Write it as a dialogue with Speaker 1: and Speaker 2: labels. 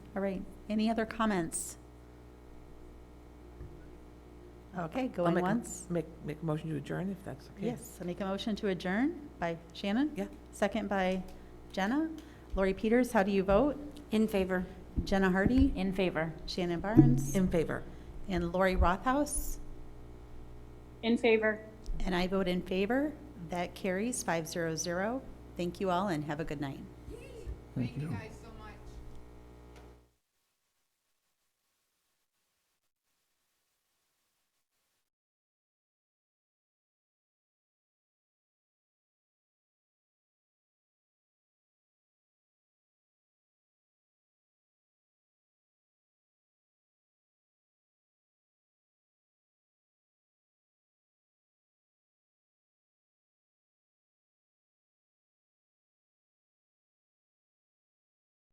Speaker 1: All right, any other comments? Okay,
Speaker 2: I'll
Speaker 1: going
Speaker 2: make a-
Speaker 1: once.
Speaker 2: Make, make a motion to adjourn if that's okay.
Speaker 1: Yes, I make a motion to adjourn by Shannon.
Speaker 2: Yeah.
Speaker 1: Second by Jenna. Lori Peters, how do you vote?
Speaker 3: In favor.
Speaker 1: Jenna Hardy,
Speaker 3: In favor.
Speaker 1: Shannon Barnes,
Speaker 2: In favor.
Speaker 1: and Lori Rothaus.
Speaker 4: In favor.
Speaker 1: And I vote in favor. That carries 500. Thank you all and have a good night.
Speaker 5: Thank you guys.